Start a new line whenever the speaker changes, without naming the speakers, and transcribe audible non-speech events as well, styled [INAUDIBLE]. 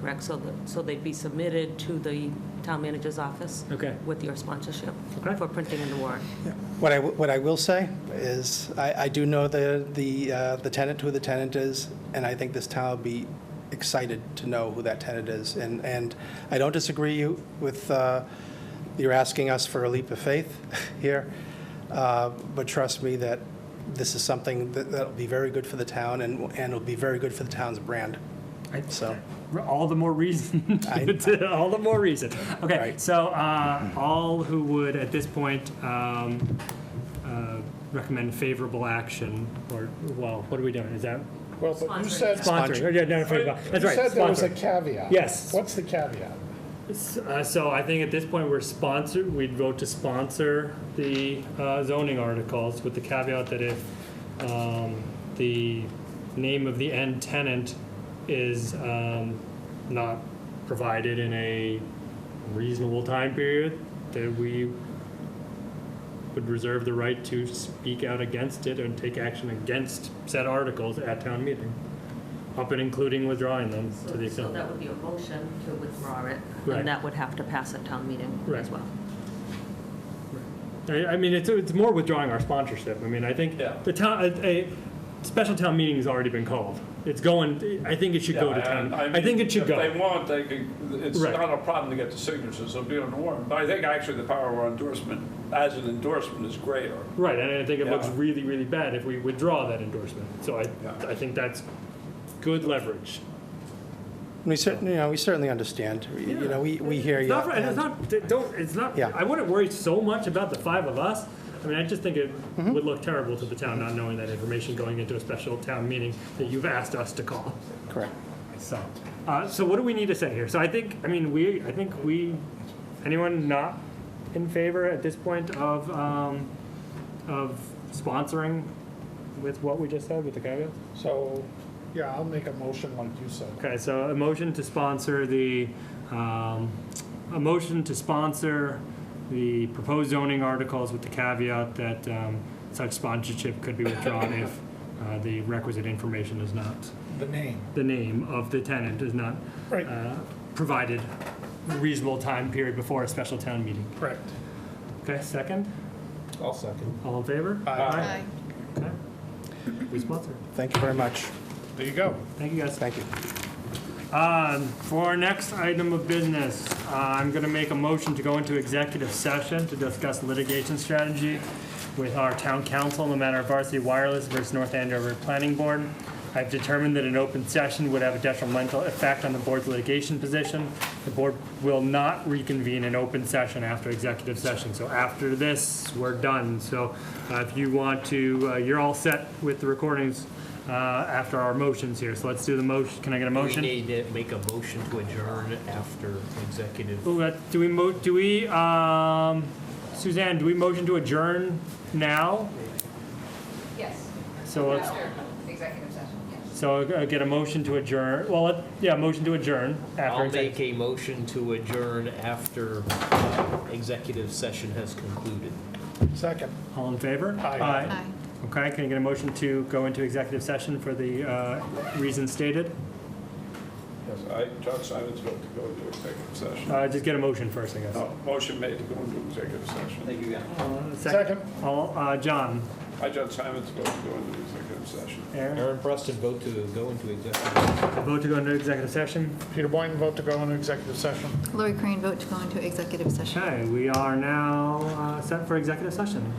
correct? So the, so they'd be submitted to the town manager's office
Okay.
with your sponsorship
Okay.
for printing in the warrant.
What I, what I will say is, I, I do know the, the, uh, the tenant, who the tenant is, and I think this town will be excited to know who that tenant is. And, and I don't disagree you with, uh, you're asking us for a leap of faith [LAUGHS] here, uh, but trust me that this is something that, that'll be very good for the town and, and it'll be very good for the town's brand,
I-
so.
All the more reason. [LAUGHS]
I-
to- all the more reason. Okay,
Right.
so uh, all who would at this point um, uh, recommend favorable action, or well, what are we doing? Is that
Well, but you
Sponsoring.
said.
sponsoring?
Sponsor.
Oh, yeah, no, favorable. That's right.
You said there was a
sponsoring.
caveat.
Yes.
What's the caveat?
S- uh, so I think at this point we're sponsored. We'd vote to sponsor the uh, zoning articles with the caveat that if um, the name of the end tenant is um, not provided in a reasonable time period, that we would reserve the right to speak out against it and take action against said articles at town meeting, up and including withdrawing them to the
So so
extent.
that would be a motion to withdraw it,
Right.
and that would have to pass at town meeting as
Right.
well.
I, I mean, it's, it's more withdrawing our sponsorship. I mean, I think
Yeah.
the town, a, a special town meeting has already been called. It's going, I think it should go to town. I, think it should
If they
go.
want, they can, it's
Right.
not a problem to get the signatures, it'll be on the warrant. But I think actually the power of our endorsement, as an endorsement, is greater.
Right, and I think it
Yeah.
looks really, really bad if we withdraw that endorsement. So I,
Yeah.
I think that's good leverage.
We certainly, you know, we certainly understand, you know, we, we hear
It's
you.
not, right, it's
and-
not, d- don't, it's not,
Yeah.
I wouldn't worry so much about the five of us. I mean, I just think it
Mm-hmm.
would look terrible to the town not knowing that information going into a special town meeting that you've asked us to call.
Correct.
So, uh, so what do we need to say here? So I think, I mean, we, I think we, anyone not in favor at this point of, um, of sponsoring with what we just said with the caveat?
So, yeah, I'll make a motion like you said.
Okay, so a motion to sponsor the, um, a motion to sponsor the proposed zoning articles with the caveat that, um, such sponsorship could be withdrawn if, uh, the requisite information is not,
The name.
the name of the tenant is not
Right,
uh, provided reasonable time period before a special town meeting.
correct.
Okay, second,
I'll second.
all in favor?
Aye.
Okay. We sponsor.
Thank you very much.
There you go.
Thank you, guys.
Thank you.
Um, For our next item of business, uh, I'm going to make a motion to go into executive session to discuss litigation strategy with our town council in the matter of varsity wireless versus North Andover Planning Board. I've determined that an open session would have a detrimental effect on the board's litigation position. The board will not reconvene in open session after executive session. So after this, we're done. So uh, if you want to, uh, you're all set with the recordings uh, after our motions here. So let's do the motion. Can I get a motion?
We need to make a motion to adjourn after executive.
Well, that- uh, Do we mo, do we, um, Suzanne, do we motion to adjourn now?
Yes,
So let's,
after executive session, yes.
so uh, get a motion to adjourn, well, let- yeah, motion to adjourn after.
I'll
exec-
make a motion to adjourn after uh, executive session has concluded.
Second.
All in favor?
Aye.
Okay, can I get a motion to go into executive session for the, uh, reasons stated?
Yes, I, John Simon's vote to go into executive session.
Uh, just get a motion first, I guess.
No, Motion made to go into executive session.
Uh,
Second.
All, uh, John,
I, John Simon's vote to go into executive session.
Aaron,
Aaron Preston, vote to go into executive. session.
vote to go into executive session.
Peter Boynton, vote to go into executive session.
Lori Crane, vote to go into executive session.
Okay, we are now, uh, set for executive session.